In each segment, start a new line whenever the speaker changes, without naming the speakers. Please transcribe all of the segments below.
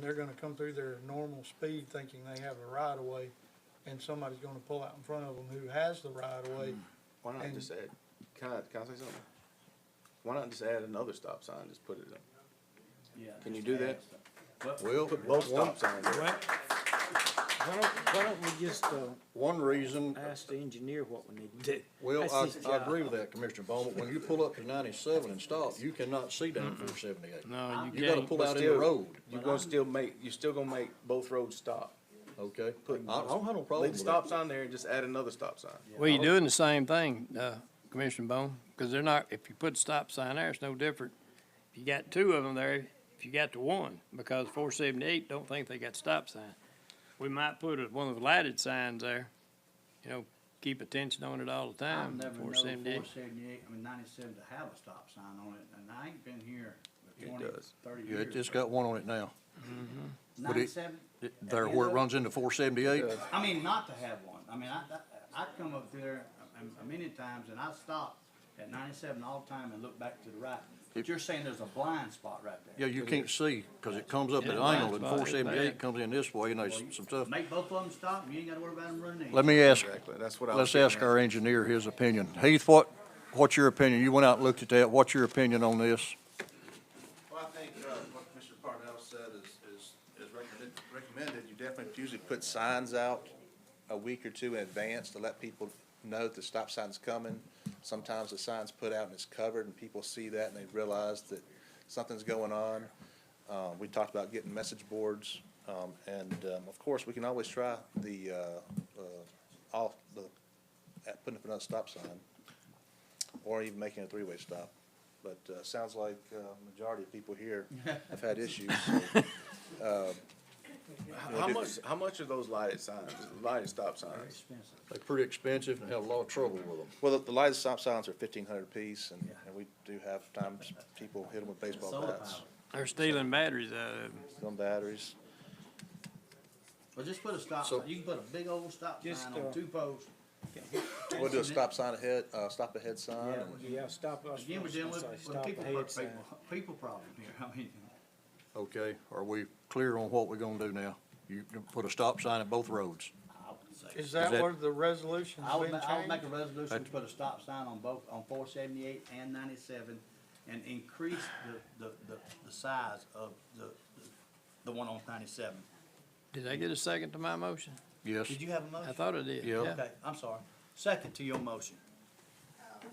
They're gonna come through their normal speed thinking they have the right of way, and somebody's gonna pull out in front of them who has the right of way.
Why not
And-
just add, can I, can I say something? Why not just add another stop sign, just put it in?
Yeah.
Can you do that?
Well,
Put both
one,
stop signs in.
Why, why don't, why don't we just, uh,
one reason,
ask the engineer what we need to do?
well,
That's
I,
his
I
job.
agree with that, Commissioner Bowman, when you pull up to ninety-seven and stop, you cannot see down four seventy-eight.
No, you
You gotta
can't.
pull out in the
Still-
road,
You're gonna still make, you're still gonna make both roads stop.
okay? I, I don't have no problem
Leave the
with that.
stop sign there and just add another stop sign.
Well, you're doing the same thing, uh, Commissioner Bone, because they're not, if you put a stop sign there, it's no different. If you got two of them there, if you got to one, because four seventy-eight don't think they got stop sign. We might put a- one of the lighted signs there, you know, keep attention on it all the
I've
time,
never known
four
four
seventy-eight.
seventy-eight, I mean ninety-seven to have a stop sign on it, and I ain't been here
It
for twenty,
does.
thirty
Yeah, it-
years.
it's got one on it now, but it-
Ninety-seven,
It- there where it runs into four seventy-eight,
I mean, not to have one, I mean, I, I, I come up through there um, a- a- many times, and I stop at ninety-seven all the time and look back to the right. But
If-
you're saying there's a blind spot right
yeah,
there.
you can't see, cause it comes up at an
Yeah,
angle, and
that's
four
about it.
seventy-eight comes in this way, and there's
Well, you
some stuff.
Make both of them stop, and you ain't gotta worry about them running in.
Let me ask,
Exactly, that's what I was.
let's ask
getting
our engineer his opinion. Heath, what, what's your opinion? You went out and looked at that, what's your opinion on this?
Well, I think, uh, what Commissioner Parnell said is, is, is recommended, recommended, you definitely usually put signs out a week or two in advance to let people know the stop sign's coming. Sometimes the sign's put out and it's covered, and people see that and they realize that something's going on. Uh, we talked about getting message boards, um, and, um, of course, we can always try the, uh, uh, off, the, at putting up another stop sign, or even making a three-way stop. But, uh, sounds like, uh, majority of people here have had issues.
at. How much, how much are those lighted signs, lighted stop signs?
Expensive.
They're pretty expensive and have a lot of trouble with them.
Well, the- the lighted stop signs are fifteen hundred apiece, and, and we do have times people hit them with baseball
Solar
bats,
powered.
They're stealing batteries out of them.
gun batteries.
Well, just put a stop
So-
sign, you can put a big old stop
Just,
sign
uh,
on two posts.
We'll do a stop sign ahead, uh, stop ahead sign,
Yeah,
and
yeah, stop us.
Again, we're
first and
dealing with,
say
with
stop
people,
ahead
pro-
sign.
people, people problem here, I mean,
Okay, are we clear on what we're gonna do now? You can put a stop sign at both roads.
I would say.
Is that
that-
where the resolution's
I would,
been
ma- I would make a
changed?
resolution to put a stop sign on both, on four seventy-eight and ninety-seven, and increase the, the, the, the size of the, the- the one on ninety-seven.
Did I get a second to my motion?
Yes.
Did you have a
I
motion?
thought I did,
Yeah.
yeah.
Okay, I'm sorry, second to your motion,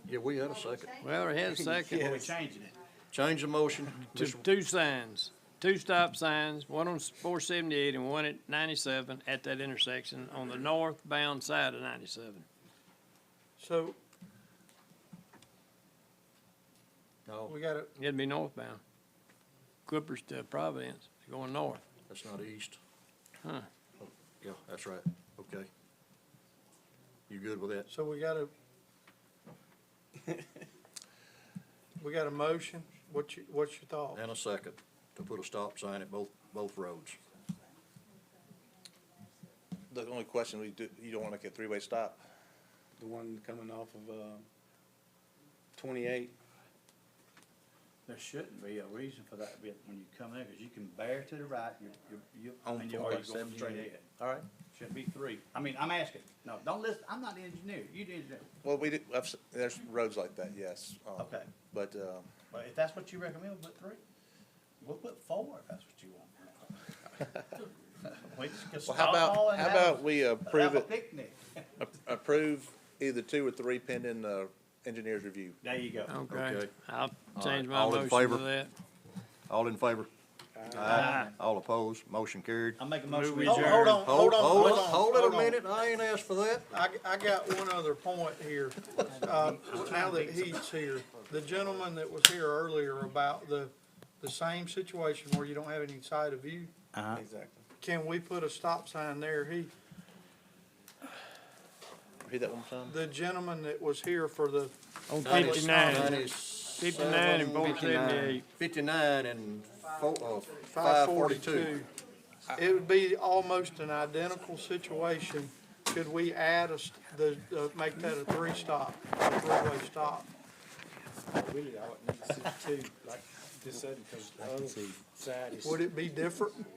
Yeah, we had a second.
Well, I had a second.
Well, we're changing it.
Change the motion.
Two, two signs, two stop signs, one on four seventy-eight and one at ninety-seven at that intersection on the northbound side of ninety-seven.
So,
No,
we gotta,
It'd be northbound. Clippers to Providence, they're going north.
that's not east.
Huh.
Yeah, that's right. Okay. You good with that?
so we gotta. We got a motion, what's your, what's your thought?
And a second to put a stop sign at both, both roads.
the only question we do, you don't wanna get three-way stop.
The one coming off of, uh, twenty-eight,
There shouldn't be a reason for that to be when you come in, cause you can bear to the right, you're, you're,
On
you're, and you're already
four by
going straight
78.
ahead. All right. Should be three. I mean, I'm asking, no, don't listen, I'm not the engineer, you the engineer,
Well, we do, I've s- there's roads like that, yes. um,
Okay.
But, um,
but if that's what you recommend, put three. We'll put four if that's what you want. We just can
well, how
stop all
about,
and
how
have a-
about we
Have
approve
a
it,
picnic.
a- approve either two or three pending, uh, engineer's review?
There you go.
Okay,
Okay.
I'll
right,
change my
all in
motion
favor?
to that.
All in favor?
Aye.
All opposed? Motion carried.
I'm making a motion. Oh,
Move
we adjourn.
Hold on, Uh, hold on, hold on.
Hold it
hold
a
on.
minute. I ain't asked for that.
I, I got one other point here. Uh, now that he's here, the gentleman that was here earlier about the, the same situation where you don't have any side of view,
exactly.
can we put a stop sign there? He,
Read that one more time?
the gentleman that was here for the,
On fifty-nine,
Ninety-seven,
fifty-nine and four seventy-eight.
Fifty-nine and four, uh,
five
five forty-two.
forty-two. It would be almost an identical situation. Could we add a, s- the, uh, make that a three-stop, a three-way stop?
Really, I would need to see two, like this side, because the other side is.
Would it be different?